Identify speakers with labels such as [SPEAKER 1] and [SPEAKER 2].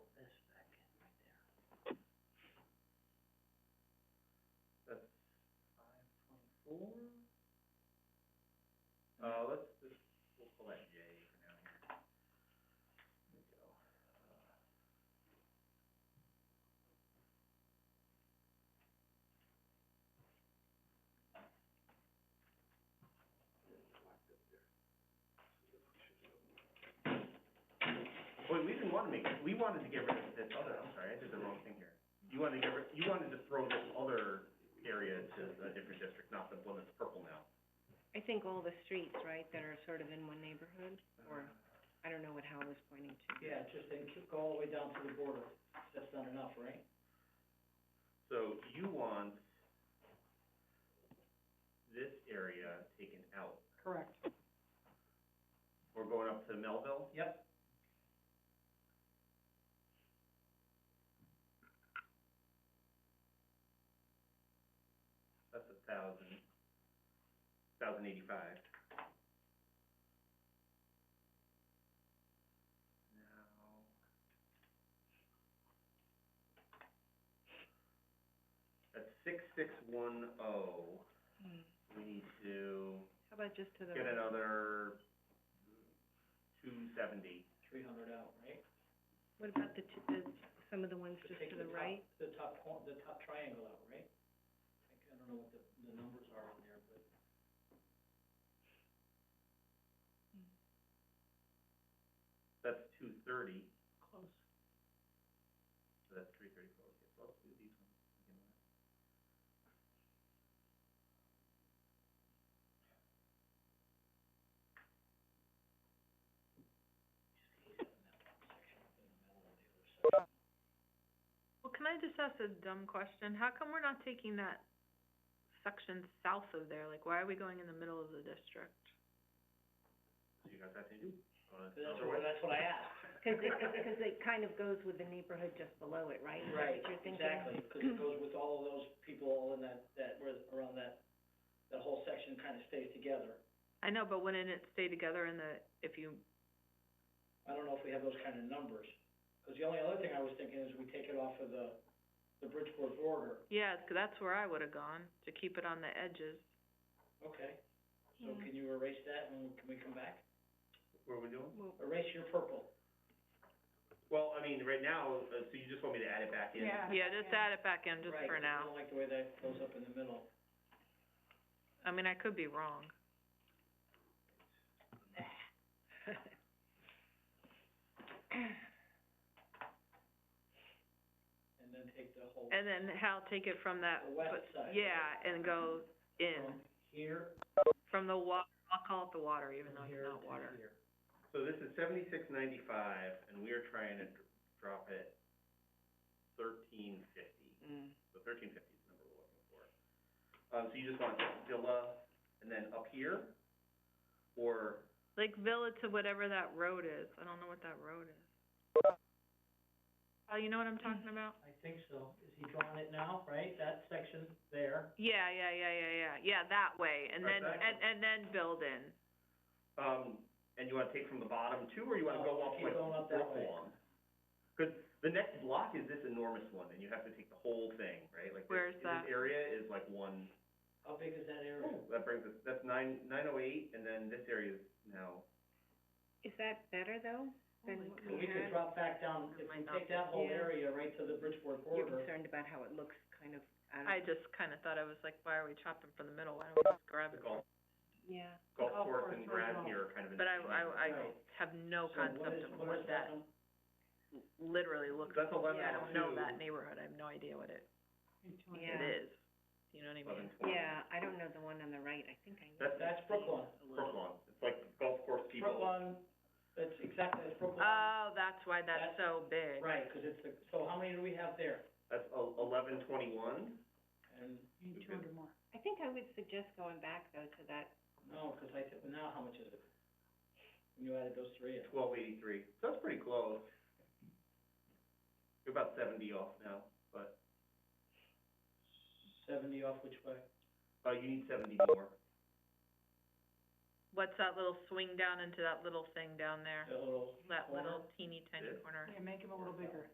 [SPEAKER 1] Uh, Wait, we didn't wanna make, it. we wanted to get rid of this other, I'm sorry, I did the wrong thing here. You wanted to get rid, you wanted to throw this other area to a different district, not the one that's purple now.
[SPEAKER 2] I think all the streets, right, that are sort of in one neighborhood, or, I don't know what Hal was pointing to.
[SPEAKER 3] Yeah, just then keep- go all the way down to the border, that's not enough, right?
[SPEAKER 1] So you want this area taken out.
[SPEAKER 3] Correct.
[SPEAKER 1] We're going up to Melville?
[SPEAKER 3] Yep,
[SPEAKER 1] That's a thousand, thousand eighty-five. Now. At six six one oh,
[SPEAKER 2] Hmm.
[SPEAKER 1] we need to
[SPEAKER 2] How about just to the,
[SPEAKER 1] get another two seventy.
[SPEAKER 3] three hundred out, right?
[SPEAKER 2] what about the, t- the, some of the ones just
[SPEAKER 3] Take
[SPEAKER 2] to
[SPEAKER 3] the
[SPEAKER 2] the
[SPEAKER 3] top-
[SPEAKER 2] right?
[SPEAKER 3] The top cor- the top triangle out, right? I c- I don't know what the, the numbers are on there, but.
[SPEAKER 1] That's two thirty,
[SPEAKER 3] Close.
[SPEAKER 1] so that's three thirty-four. Okay, so let's do these ones. to begin with.
[SPEAKER 4] Well, can I just ask a dumb question? How come we're not taking that section south of there? Like, why are we going in the middle of the district?
[SPEAKER 1] So you got that to do? Uh, it's
[SPEAKER 3] That's
[SPEAKER 1] another
[SPEAKER 3] what,
[SPEAKER 1] way.
[SPEAKER 3] that's what I asked.
[SPEAKER 2] 'Cause it, 'cause it kind of goes with the neighborhood just below it, right? Is that
[SPEAKER 3] Right,
[SPEAKER 2] what you're thinking?
[SPEAKER 3] exactly, 'cause it goes with all of those people all in that, that, were around that, that whole section kind of stays together.
[SPEAKER 4] I know, but wouldn't it stay together in the, if you,
[SPEAKER 3] I don't know if we have those kind of numbers, 'cause the only other thing I was thinking is we take it off of the, the Bridgeport border,
[SPEAKER 4] yeah, 'cause that's where I would've gone, to keep it on the edges.
[SPEAKER 3] okay?
[SPEAKER 4] Mm-hmm.
[SPEAKER 3] So
[SPEAKER 2] Yeah.
[SPEAKER 3] can you erase that and can we come back?
[SPEAKER 1] What are we doing?
[SPEAKER 2] Well,
[SPEAKER 3] Erase your purple.
[SPEAKER 1] Well, I mean, right now, uh, so you just want me to add it back in?
[SPEAKER 4] Yeah, just add it back in just
[SPEAKER 3] Right,
[SPEAKER 4] for
[SPEAKER 3] 'cause I
[SPEAKER 4] now.
[SPEAKER 3] don't like the way that goes up in the middle.
[SPEAKER 4] I mean, I could be wrong.
[SPEAKER 3] And then take the whole,
[SPEAKER 4] And then Hal, take it from that,
[SPEAKER 3] The west
[SPEAKER 4] but-
[SPEAKER 3] side. Uh-huh.
[SPEAKER 4] yeah, and go in,
[SPEAKER 3] from here,
[SPEAKER 4] from the wa- I'll call it the water, even though
[SPEAKER 3] from
[SPEAKER 4] it's
[SPEAKER 3] here to
[SPEAKER 4] not water.
[SPEAKER 3] here.
[SPEAKER 1] So this is seventy-six ninety-five, and we are trying to dr- drop it thirteen fifty.
[SPEAKER 2] mm,
[SPEAKER 1] So thirteen fifty is the number we're looking for. Um, so you just want Villa and then up here? Or,
[SPEAKER 4] Like Villa to whatever that road is, I don't know what that road is. Oh, you know what I'm talking about?
[SPEAKER 3] I think so, is he drawing it now, right, that section there?
[SPEAKER 4] Yeah, yeah, yeah, yeah, yeah, yeah, that way, and then,
[SPEAKER 1] Exactly.
[SPEAKER 4] and, and then build in.
[SPEAKER 1] um, and you wanna take from the bottom too, or you wanna go up
[SPEAKER 3] Keep
[SPEAKER 1] like
[SPEAKER 3] going up that way.
[SPEAKER 1] Brooklawn? Cause the next block is this enormous one, and you have to take the whole thing, right? Like this-
[SPEAKER 4] Where's that?
[SPEAKER 1] This area is like one.
[SPEAKER 3] How big is that area?
[SPEAKER 1] That brings us, that's nine, nine oh eight, and then this area is now,
[SPEAKER 2] Is that better, though,
[SPEAKER 4] Oh
[SPEAKER 2] than what
[SPEAKER 3] So
[SPEAKER 2] we
[SPEAKER 3] we
[SPEAKER 2] had?
[SPEAKER 3] could drop back down, if we take that whole area right to the Bridgeport
[SPEAKER 2] You're
[SPEAKER 3] border,
[SPEAKER 2] concerned about how it looks kind of out of.
[SPEAKER 4] I just kinda thought, I was like, why are we chopping from the middle, why don't we just grab
[SPEAKER 1] the
[SPEAKER 4] it?
[SPEAKER 1] golf,
[SPEAKER 2] Yeah.
[SPEAKER 1] golf
[SPEAKER 3] Golf
[SPEAKER 1] course
[SPEAKER 3] course
[SPEAKER 1] and
[SPEAKER 3] right
[SPEAKER 1] ground
[SPEAKER 3] off.
[SPEAKER 1] here are kind of in.
[SPEAKER 4] But I, I, I
[SPEAKER 3] Right.
[SPEAKER 4] have
[SPEAKER 3] So
[SPEAKER 4] no
[SPEAKER 3] what
[SPEAKER 4] concept
[SPEAKER 3] is,
[SPEAKER 4] of
[SPEAKER 3] what
[SPEAKER 4] what
[SPEAKER 3] is that
[SPEAKER 4] that
[SPEAKER 3] number?
[SPEAKER 4] literally looks like,
[SPEAKER 1] That's eleven
[SPEAKER 4] I don't know
[SPEAKER 1] oh two,
[SPEAKER 4] that neighborhood, I have no idea what it,
[SPEAKER 2] Yeah.
[SPEAKER 4] it is, you know what I mean?
[SPEAKER 1] eleven twenty.
[SPEAKER 2] Yeah, I don't know the one on the right, I think I know.
[SPEAKER 1] That's,
[SPEAKER 3] That's Brooklyn.
[SPEAKER 2] a little.
[SPEAKER 1] Brooklyn, it's like golf course people.
[SPEAKER 3] Brooklyn, that's exactly, that's Brooklyn.
[SPEAKER 4] Oh, that's why that's
[SPEAKER 3] That's-
[SPEAKER 4] so big.
[SPEAKER 3] Right, 'cause it's the, so how many do we have there?
[SPEAKER 1] That's el- eleven twenty-one,
[SPEAKER 3] And,
[SPEAKER 1] two hundred
[SPEAKER 2] more. I think I would suggest going back, though, to that,
[SPEAKER 3] no, 'cause I, thi- now how much is it? When you added those three in.
[SPEAKER 1] twelve eighty-three, so that's pretty close. You're about seventy off now, but,
[SPEAKER 3] Seventy off which way?
[SPEAKER 1] uh, you need seventy more.
[SPEAKER 4] What's that little swing down into that little thing down there?
[SPEAKER 3] The little,
[SPEAKER 4] That
[SPEAKER 3] Corner?
[SPEAKER 4] little teeny tiny
[SPEAKER 1] This?
[SPEAKER 4] corner?
[SPEAKER 3] make him a little bigger.